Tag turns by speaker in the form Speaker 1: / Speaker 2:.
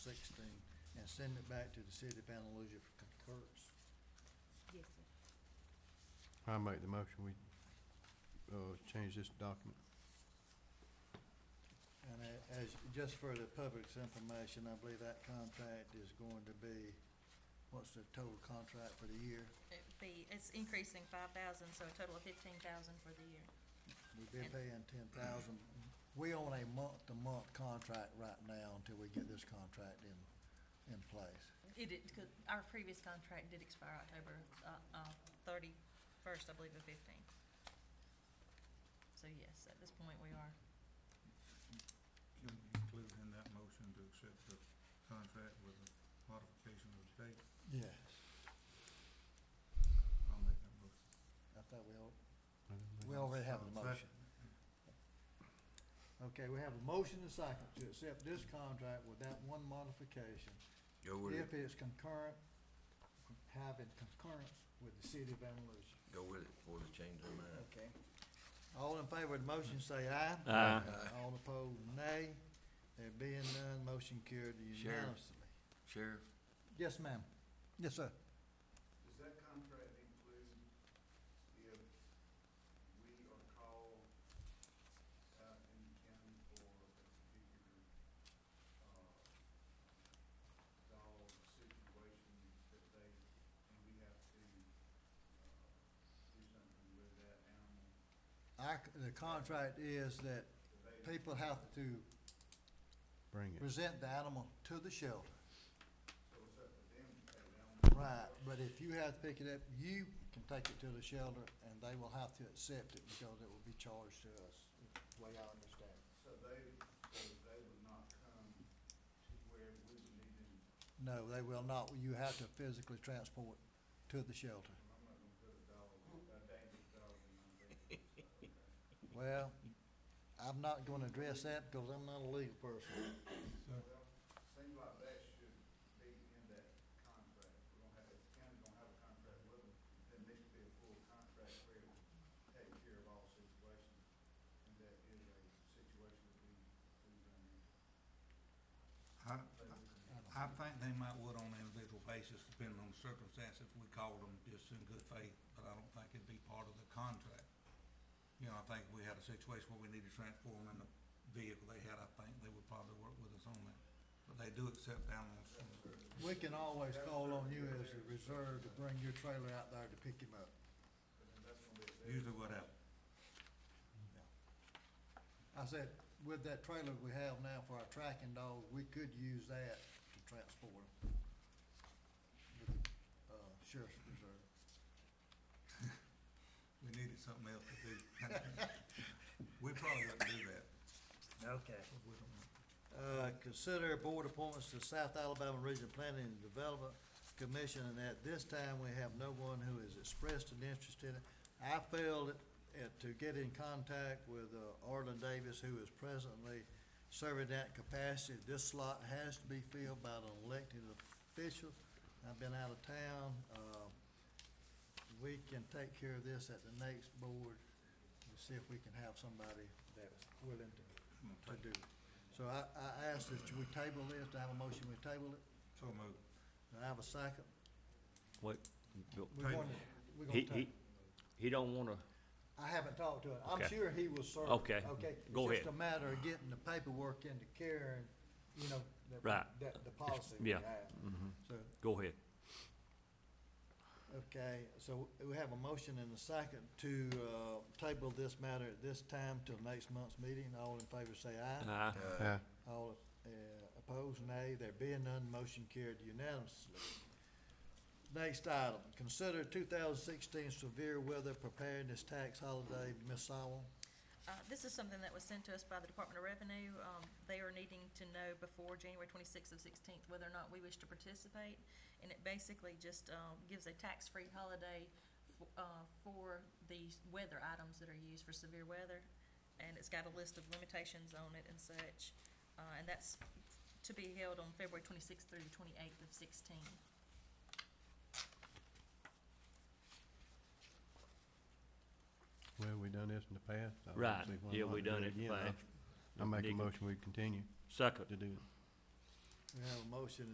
Speaker 1: sixteen and send it back to the city of Panaloosa for concurrence.
Speaker 2: Yes, sir.
Speaker 3: I make the motion, we, uh, change this document.
Speaker 1: And a- as, just for the public's information, I believe that contract is going to be, what's the total contract for the year?
Speaker 4: It'd be, it's increasing five thousand, so a total of fifteen thousand for the year.
Speaker 1: We've been paying ten thousand. We on a month-to-month contract right now until we get this contract in, in place.
Speaker 4: It, it, could- our previous contract did expire October, uh, uh, thirty-first, I believe, of fifteen. So yes, at this point, we are.
Speaker 5: Can we include in that motion to accept the contract with a modification of the date?
Speaker 1: Yes.
Speaker 5: I'll make that motion.
Speaker 1: I thought we all, we already have a
Speaker 5: Second.
Speaker 1: motion. Okay, we have a motion and second to accept this contract with that one modification.
Speaker 6: Go with it,
Speaker 1: If it's concurrent, having concurrence with the city of Andalusia.
Speaker 6: go with it before they change their mind.
Speaker 1: Okay. All in favor of the motion, say aye.
Speaker 7: Aye.
Speaker 1: All opposed, nay. There being none, motion carried
Speaker 6: Sheriff.
Speaker 1: unanimously.
Speaker 6: Sheriff,
Speaker 1: Yes, ma'am. Yes, sir.
Speaker 8: Does that contract include if we are called out in the county for a particular, uh, dog situation that they, and we have to, uh, do something with that animal?
Speaker 1: Our, c- the contract is that people have to
Speaker 3: Bring it.
Speaker 1: present the animal to the shelter.
Speaker 8: So it's up to them to take the animal.
Speaker 1: Right, but if you have to pick it up, you can take it to the shelter and they will have to accept it because it will be charged to us, is the way I understand it.
Speaker 8: So they, so they would not come to where we would need them,
Speaker 1: No, they will not. You have to physically transport to the shelter.
Speaker 8: I'm not gonna put a dog, a dangerous dog in my bed.
Speaker 1: Well, I'm not gonna address that because I'm not a legal person.
Speaker 8: Well, seems like that should be in that contract, we're gonna have, if the county's gonna have a contract with them, then there should be a full contract where it takes care of all situations, and that is a situation that we, we've done.
Speaker 5: I, I- I think they might would on an individual basis, depending on the circumstance, if we called them just in good faith, but I don't think it'd be part of the contract. You know, I think if we had a situation where we needed to transform in the vehicle they had, I think they would probably work with us on that. But they do accept animals from the
Speaker 1: We can always call on you as a reserve to bring your trailer out there to pick him up.
Speaker 8: But then that's gonna be a
Speaker 5: Usually what happens.
Speaker 1: I said, with that trailer we have now for our tracking dogs, we could use that to transport them. with the, Uh, sheriff's reserve.
Speaker 5: We needed something else to do. We probably got to do that,
Speaker 1: Okay.
Speaker 5: but we don't.
Speaker 1: Uh, consider board appointments to South Alabama Regional Planning and Development Commission, and at this time, we have no one who has expressed an interest in it. I failed at, to get in contact with, uh, Arlen Davis, who is presently serving that capacity. This slot has to be filled by an elected official. I've been out of town, uh, we can take care of this at the next board, and see if we can have somebody that's willing to, to do it. So I, I asked that we table this, to have a motion, we table it,
Speaker 5: So moved.
Speaker 1: do I have a second?
Speaker 7: What,
Speaker 1: We
Speaker 5: Table.
Speaker 1: want to, we're
Speaker 7: he,
Speaker 1: gonna
Speaker 7: he,
Speaker 1: table.
Speaker 7: he don't wanna,
Speaker 1: I haven't talked to him, I'm
Speaker 7: Okay.
Speaker 1: sure he will serve.
Speaker 7: Okay.
Speaker 1: Okay?
Speaker 7: Go
Speaker 1: It's just a matter of getting the paperwork into Karen, you know, that,
Speaker 7: Right.
Speaker 1: that, the policy we
Speaker 7: yeah. Mm-hmm.
Speaker 1: have. So,
Speaker 7: go ahead.
Speaker 1: okay, so we have a motion and a second to, uh, table this matter at this time till next month's meeting, all in favor say aye.
Speaker 7: Aye.
Speaker 6: uh,
Speaker 3: Yeah,
Speaker 1: All uh, opposed, nay. There being none, motion carried unanimously. Next item, consider two thousand sixteen severe weather preparedness tax holiday, Ms. Sowell.
Speaker 4: Uh, this is something that was sent to us by the Department of Revenue. Um, they are needing to know before January twenty-sixth of sixteenth whether or not we wish to participate. And it basically just, um, gives a tax-free holiday, f- uh, for these weather items that are used for severe weather. And it's got a list of limitations on it and such. Uh, and that's to be held on February twenty-sixth through the twenty-eighth of sixteen.
Speaker 3: well, we done this in the past. I don't
Speaker 7: Right.
Speaker 3: see why
Speaker 7: Yeah,
Speaker 3: not
Speaker 7: we
Speaker 3: to do
Speaker 7: done it
Speaker 3: again.
Speaker 7: past.
Speaker 3: I I make a
Speaker 7: Nigga.
Speaker 3: motion, we continue
Speaker 7: Second.
Speaker 3: to do it.
Speaker 1: We have a motion